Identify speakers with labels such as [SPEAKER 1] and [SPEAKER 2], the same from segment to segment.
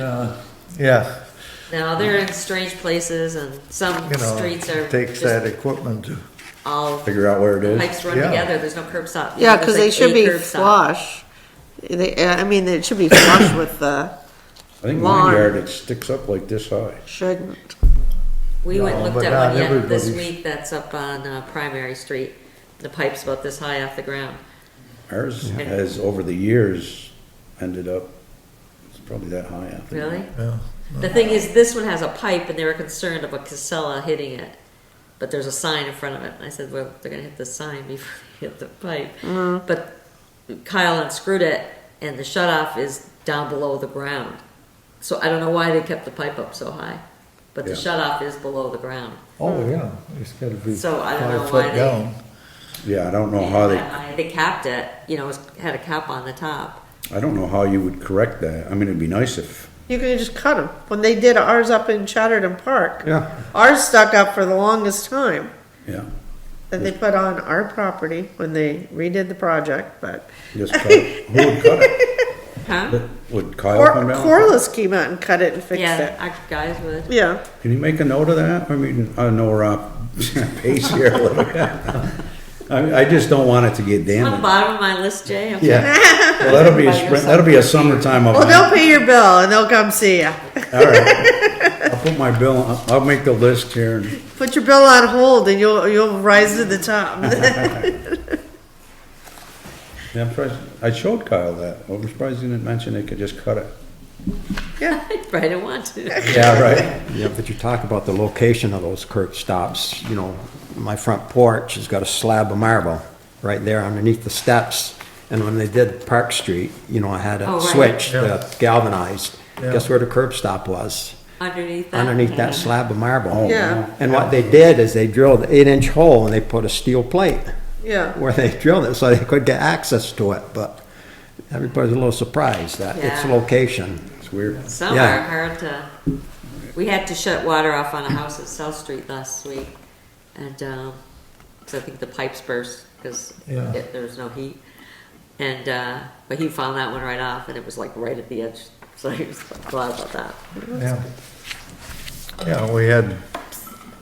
[SPEAKER 1] Uh, Yeah,
[SPEAKER 2] No, they're in strange places and some
[SPEAKER 1] you know,
[SPEAKER 2] streets are
[SPEAKER 1] it takes that
[SPEAKER 2] just
[SPEAKER 1] equipment to,
[SPEAKER 2] all
[SPEAKER 3] figure out where it is.
[SPEAKER 2] pipes run
[SPEAKER 1] Yeah.
[SPEAKER 2] together, there's no curb stop.
[SPEAKER 4] Yeah,
[SPEAKER 2] There's
[SPEAKER 4] because they
[SPEAKER 2] like
[SPEAKER 4] should
[SPEAKER 2] a
[SPEAKER 4] be
[SPEAKER 2] curb stop.
[SPEAKER 4] flush. They, uh, I mean, it should be flush with the,
[SPEAKER 3] I think my
[SPEAKER 4] Lawn.
[SPEAKER 3] yard, it sticks up like this high.
[SPEAKER 4] shouldn't.
[SPEAKER 2] We went and
[SPEAKER 1] No,
[SPEAKER 2] looked
[SPEAKER 1] but
[SPEAKER 2] at
[SPEAKER 1] not
[SPEAKER 2] one yet this
[SPEAKER 1] everybody's-
[SPEAKER 2] week that's up on uh, Primary Street. The pipe's about this high off the ground.
[SPEAKER 3] Ours has, over the years, ended up, it's probably that high out there.
[SPEAKER 2] Really?
[SPEAKER 1] yeah.
[SPEAKER 2] The thing is, this one has a pipe and they were concerned of a Casella hitting it. But there's a sign in front of it. And I said, well, they're gonna hit the sign before they hit the pipe.
[SPEAKER 5] Mm.
[SPEAKER 2] But Kyle unscrewed it and the shut off is down below the ground. So I don't know why they kept the pipe up so high, but the
[SPEAKER 3] Yeah.
[SPEAKER 2] shut off is below the ground.
[SPEAKER 1] Oh, yeah, it's gotta be
[SPEAKER 2] Hmm. So I don't know
[SPEAKER 1] five
[SPEAKER 2] why
[SPEAKER 1] foot
[SPEAKER 2] they-
[SPEAKER 1] down.
[SPEAKER 3] Yeah, I don't know Oh, how they,
[SPEAKER 2] I- I- They capped it, you know, it was- had a cap on the top.
[SPEAKER 3] I don't know how you would correct that. I mean, it'd be nice if,
[SPEAKER 4] You could just cut them. When they did ours up in Chatterton Park,
[SPEAKER 3] yeah,
[SPEAKER 4] ours stuck up for the longest time.
[SPEAKER 3] yeah.
[SPEAKER 4] That they put on our property when they redid the project, but,
[SPEAKER 3] Just cut, it. who would cut it?
[SPEAKER 2] Huh?
[SPEAKER 3] Would Kyle
[SPEAKER 4] or
[SPEAKER 3] come down?
[SPEAKER 4] Corliss came out and cut it and fixed
[SPEAKER 2] Yeah,
[SPEAKER 4] it.
[SPEAKER 2] our guys would.
[SPEAKER 4] Yeah,
[SPEAKER 3] Can you make a note of that? I mean, I know we're off pace here a little bit. I, I just don't want it to get
[SPEAKER 2] On the
[SPEAKER 3] damaged.
[SPEAKER 2] bottom of my list, Jay, I'm
[SPEAKER 3] Yeah. Well, that'll be a spring, that'll be a summertime event.
[SPEAKER 4] well, they'll pay your bill and they'll come see you.
[SPEAKER 3] All right. I'll put my bill, I'll- I'll make the list here. and-
[SPEAKER 4] Put your bill on hold and you'll, you'll rise to the top.
[SPEAKER 3] Yeah, I'm surprised, I showed Kyle that. I'm surprised he didn't mention they could just cut it.
[SPEAKER 2] right, I want to.
[SPEAKER 3] Yeah, right.
[SPEAKER 5] Yeah, but you talk about the location of those curb stops, you know, my front porch has got a slab of marble right there underneath the steps. And when they did Park Street, you know, I had
[SPEAKER 2] Oh,
[SPEAKER 5] it
[SPEAKER 2] right.
[SPEAKER 5] switched,
[SPEAKER 1] Yeah.
[SPEAKER 5] uh, galvanized.
[SPEAKER 1] Yeah.
[SPEAKER 5] Guess where the curb stop was?
[SPEAKER 2] Underneath that.
[SPEAKER 5] Underneath that slab of
[SPEAKER 3] Oh,
[SPEAKER 5] marble.
[SPEAKER 4] Yeah.
[SPEAKER 5] And what they did is they drilled an eight-inch hole and they put a steel plate
[SPEAKER 4] Yeah,
[SPEAKER 5] where they drilled it so they could get access to it, but everybody's a little surprised at its
[SPEAKER 2] Yeah.
[SPEAKER 5] location.
[SPEAKER 3] It's weird.
[SPEAKER 2] Some
[SPEAKER 5] Yeah.
[SPEAKER 2] are hard to, we had to shut water off on a house at South Street last week. And, um, cause I think the pipes burst, cause
[SPEAKER 1] Yeah.
[SPEAKER 2] it- there was no heat. And, uh, but he found that one right off and it was like right at the edge. So he was glad about that.
[SPEAKER 1] Yeah, Yeah, we had,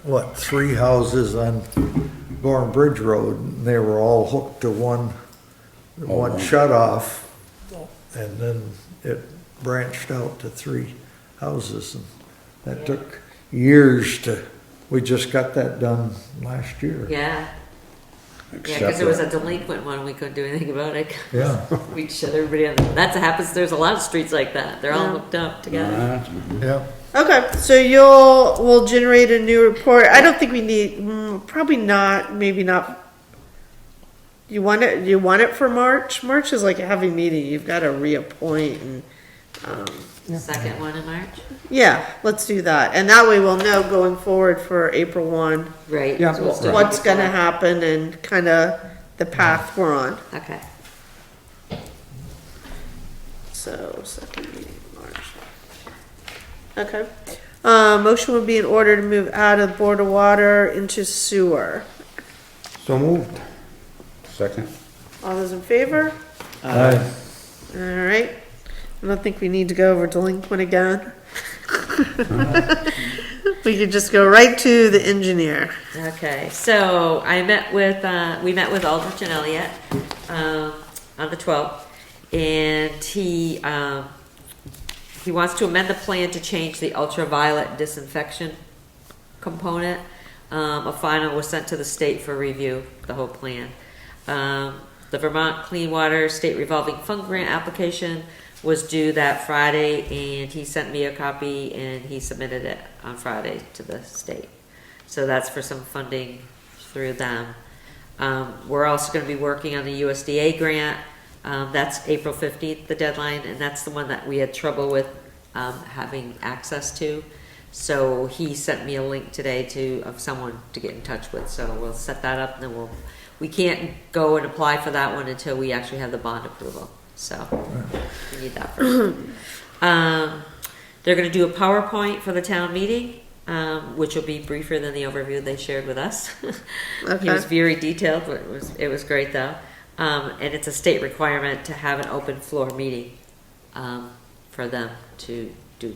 [SPEAKER 1] what, three houses on Gorham Bridge Road, and they were all hooked to one, one
[SPEAKER 3] Oh, wow.
[SPEAKER 1] shut-off, and then it branched out to three houses, and that took years to, we just got that done last year.
[SPEAKER 2] Yeah, yeah,
[SPEAKER 3] Except
[SPEAKER 2] cause it was a
[SPEAKER 3] that
[SPEAKER 2] delinquent one. We couldn't do anything about it.
[SPEAKER 1] Yeah,
[SPEAKER 2] We shut everybody on. That happens. There's a lot of streets like that. They're all
[SPEAKER 4] Yeah.
[SPEAKER 2] hooked up together.
[SPEAKER 3] Nah,
[SPEAKER 1] yeah.
[SPEAKER 4] okay, so you'll, we'll generate a new report, I don't think we need, mm, probably not, maybe not. You want it, you want it for March, March is like a heavy meeting, you've gotta reappoint and, um,
[SPEAKER 2] Second one in March.
[SPEAKER 4] yeah, let's do that, and that way we'll know going forward for April one,
[SPEAKER 2] Right.
[SPEAKER 5] Yeah,
[SPEAKER 2] so we'll start
[SPEAKER 4] what's gonna
[SPEAKER 2] before.
[SPEAKER 4] happen and kinda the path we're on,
[SPEAKER 2] Okay.
[SPEAKER 4] so, second meeting in March. Okay, uh, motion would be in order to move out of Board of Water into sewer.
[SPEAKER 5] So moved.
[SPEAKER 3] Second,
[SPEAKER 4] All those in favor? All right. I don't think we need to go over delinquent again. We could just go right to the engineer.
[SPEAKER 2] Okay, so I met with, uh, we met with Aldrich and Elliott, um, on the twelfth, and he, um, he wants to amend the plan to change the ultraviolet disinfection component. Um, a final was sent to the state for review, the whole plan. Um, the Vermont Clean Water State Revolving Fund Grant application was due that Friday, and he sent me a copy, and he submitted it on Friday to the state. So that's for some funding through them. Um, we're also gonna be working on the USDA grant. Um, that's April fifteenth, the deadline, and that's the one that we had trouble with, um, having access to. So he sent me a link today to, of someone to get in touch with, so we'll set that up and then we'll, we can't go and apply for that one until we actually have the bond approval, so we need that first. Um, they're gonna do a PowerPoint for the town meeting, um, which will be briefer than the overview they shared with us. He was
[SPEAKER 4] Okay.
[SPEAKER 2] very detailed, but it was, it was great though. Um, and it's a state requirement to have an open floor meeting, um, for them to